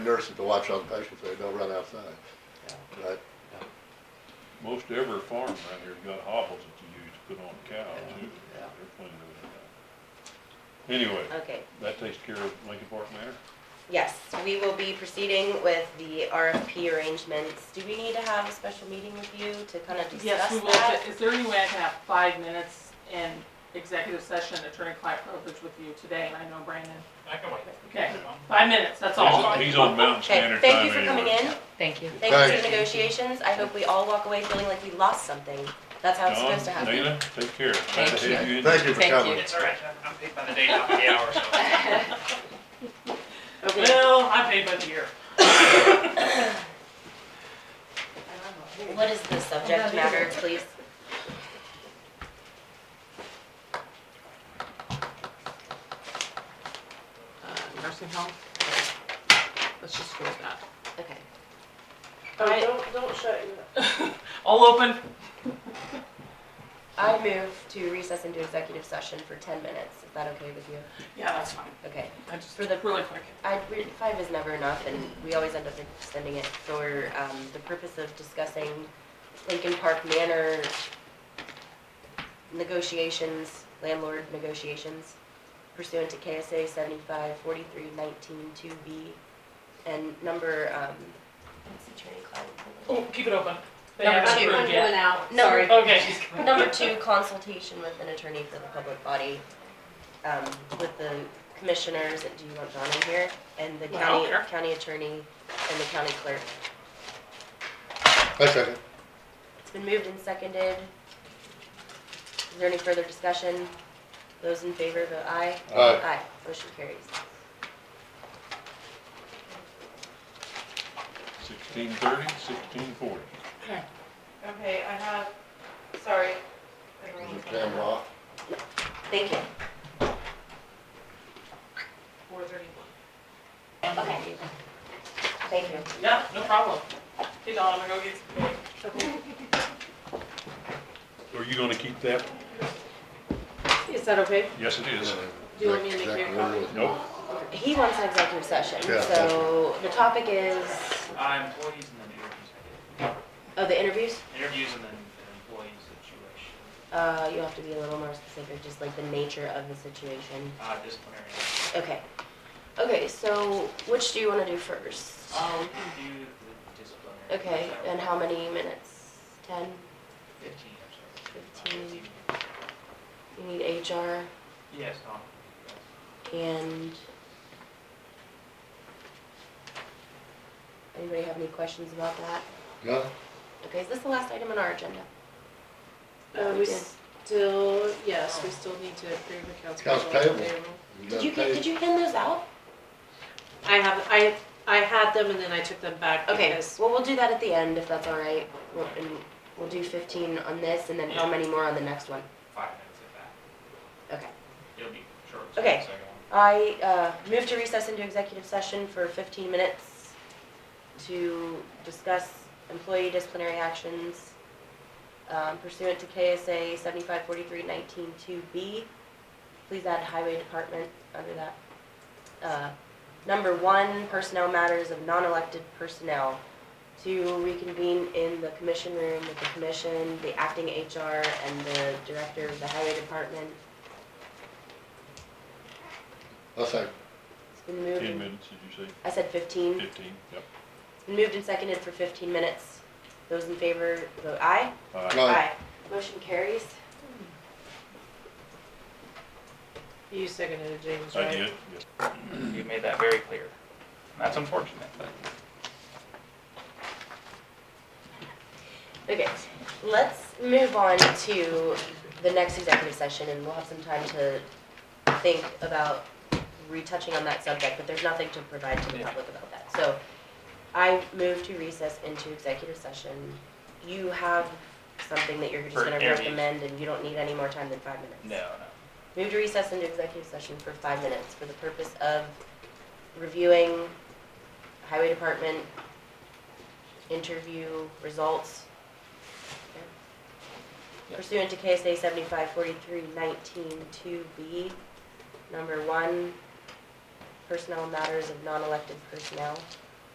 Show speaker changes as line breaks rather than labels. nurses to watch on patients, they don't run outside, right?
Most every farm around here's got hobbles that you use to put on cows, too.
Yeah.
They're plenty of that. Anyway,
Okay,
that takes care of Lincoln Park Manor.
yes, we will be proceeding with the RFP arrangements. Do we need to have a special meeting with you to kind of
Yes,
discuss
we will.
that?
Is there any way I can have five minutes in executive session, attorney-client privilege with you today? And I know Brandon.
I can wait.
Okay, five minutes, that's all.
He's, he's on Mountain
Okay,
Standard Time
thank you
anyway.
for coming in.
Thank you.
Thank you for
Thanks.
the negotiations. I hope we all walk away feeling like we lost something. That's how it's
Don,
supposed to happen.
Dana, take care. Glad to
Thank
have you in.
Thank you for
Thank you.
coming.
It's all right, I'm- I'm paid by the day, not by the hour, so.
Okay,
Well, I paid by the year.
what is the subject matter, please?
Uh, Nursing home? Let's just go with that.
Okay.
Oh,
Right.
don't, don't shut your
All open?
I move to recess into executive session for ten minutes. Is that okay with you?
Yeah, that's fine.
Okay.
I just,
For the-
really quick.
I, we- five is never enough, and we always end up extending it for, um, the purpose of discussing Lincoln Park Manor negotiations, landlord negotiations pursuant to KSA seventy-five forty-three nineteen two B, and number, um, what's the attorney client?
Oh, keep it open. They
Number
haven't
two.
approved
one
yet.
out.
No.
Sorry.
Okay.
Number two, consultation with an attorney for the public body, um, with the commissioners, do you want John in here? And the
Well,
county,
here.
county attorney and the county clerk.
I second.
It's been moved and seconded. Is there any further discussion? Those in favor, vote aye.
Aye.
motion carries.
Sixteen thirty, sixteen forty.
Okay, I have, sorry.
Is the camera off?
Thank you.
Four thirty-one.
Okay. Thank you.
Yeah, no problem. Hey, Dawn, I'm gonna go get some.
Are you gonna keep that?
Is that okay?
Yes, it is.
Do you want me to make you a
Exactly what it is.
copy?
Nope.
He wants an executive session,
Yeah.
so the topic is,
Uh, employees and then interviews,
oh, the interviews?
interviews and then and employees situation,
Uh, you'll have to be a little more specific, just like the nature of the situation.
uh, disciplinary.
Okay. Okay, so which do you wanna do first?
Uh, we can do the disciplinary.
Oh, Okay,
That
and
work?
how many minutes? Ten?
Fifteen, I'm sorry. Uh,
Fifteen. You need HR
Yes, Tom.
and. Anybody have any questions about that?
No?
Okay, is this the last item on our agenda?
Uh, we
Yeah.
still, yes, we still need to approve accounts
Accounts
payable.
payable.
payroll.
Did you, get- did you hand those out?
I have, I, I had them and then I took them back
Okay,
because
well, we'll do that at the end if that's all right. We'll, and we'll do fifteen on this and then how many more on the next one?
Five minutes at that.
Okay.
It'll be short. so
Okay.
it's like, um,
I uh, move to recess into executive session for 15 minutes to discuss employee disciplinary actions um, pursuant to KSA 7543192B. Please add highway department under that. Uh, Number one, personnel matters of non-elected personnel. To reconvene in the commission room with the commission, the acting HR, and the director of the highway department.
I second.
It's been moved.
Ten minutes, did you say?
I said 15.
Fifteen, yep.
Been moved and seconded for fifteen minutes. Those in favor, vote aye.
All right.
No. Aye.
Motion carries.
you seconded it, James,
I
right?
did, yes.
um, You made that very clear. That's unfortunate, but.
Okay, let's move on to the next executive session and we'll have some time to think about retouching on that subject, but there's nothing to provide to the
Yeah.
public about that. So I move to recess into executive session. You have something that you're just
For
gonna
interviews.
recommend and you don't need any more time than five minutes.
No, no.
Move to recess into executive session for five minutes for the purpose of reviewing highway department interview results
Yeah.
pursuant to KSA seventy-five forty-three nineteen two B, number one, personnel matters of non-elected personnel.